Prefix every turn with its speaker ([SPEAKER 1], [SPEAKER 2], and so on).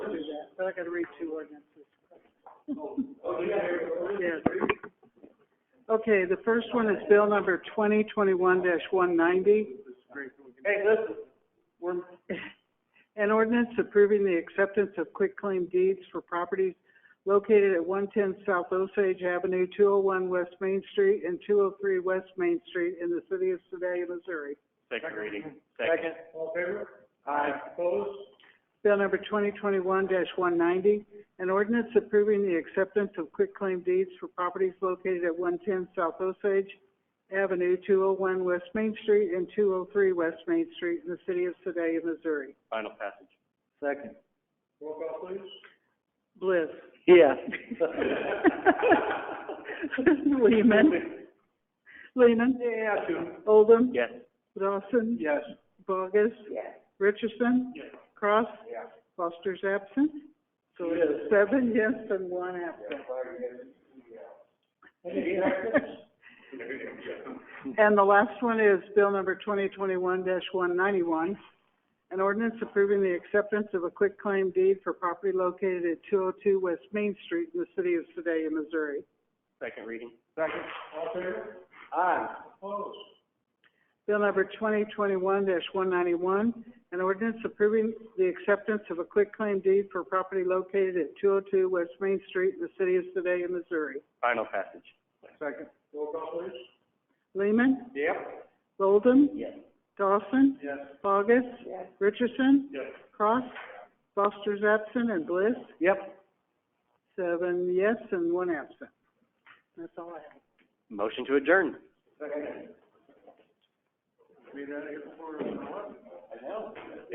[SPEAKER 1] but I gotta read two ordinances.
[SPEAKER 2] Oh,
[SPEAKER 1] Yes. Okay, the first one is bill number twenty twenty-one one ninety.
[SPEAKER 2] Hey, listen, we're,
[SPEAKER 1] An ordinance approving the acceptance of quitclaim deeds for properties located at one ten South Osage Avenue, two oh one West Main Street, and two oh three West Main Street in the city of Sedalia, Missouri.
[SPEAKER 3] Second reading.
[SPEAKER 2] second, all in favor? Aye. Opposed?
[SPEAKER 1] Bill number twenty twenty-one one ninety, an ordinance approving the acceptance of quitclaim deeds for properties located at one ten South Osage Avenue, two oh one West Main Street, and two oh three West Main Street in the city of Sedalia, Missouri.
[SPEAKER 3] Final passage.
[SPEAKER 2] Second. Roll call, please.
[SPEAKER 1] Bliss.
[SPEAKER 2] Yeah.
[SPEAKER 1] Lehman. Lehman.
[SPEAKER 2] Yeah, two.
[SPEAKER 1] Oldham.
[SPEAKER 3] Yes.
[SPEAKER 1] Dawson.
[SPEAKER 2] Yes.
[SPEAKER 1] Bogus. Richardson.
[SPEAKER 2] Yes.
[SPEAKER 1] Cross.
[SPEAKER 2] Yeah.
[SPEAKER 1] Foster's absent. So it's
[SPEAKER 2] Yes.
[SPEAKER 1] seven yes and one absent.
[SPEAKER 2] Any actions?
[SPEAKER 1] And the last one is bill number twenty twenty-one one ninety-one, an ordinance approving the acceptance of a quitclaim deed for property located at two oh two West Main Street in the city of Sedalia, Missouri.
[SPEAKER 3] Second reading.
[SPEAKER 2] Second. All in favor? Aye. Opposed?
[SPEAKER 1] Bill number twenty twenty-one one ninety-one, an ordinance approving the acceptance of a quitclaim deed for property located at two oh two West Main Street in the city of Sedalia, Missouri.
[SPEAKER 3] Final passage.
[SPEAKER 2] Second. Roll call, please.
[SPEAKER 1] Lehman,
[SPEAKER 2] Yep.
[SPEAKER 1] Golden,
[SPEAKER 3] Yes.
[SPEAKER 1] Dawson,
[SPEAKER 2] Yes.
[SPEAKER 1] Bogus, Richardson,
[SPEAKER 2] Yes.
[SPEAKER 1] Cross, Foster's absent, and Bliss.
[SPEAKER 2] Yep.
[SPEAKER 1] Seven yes and one absent. That's all I have.
[SPEAKER 3] Motion to adjourn.
[SPEAKER 2] Second. Be out of here before.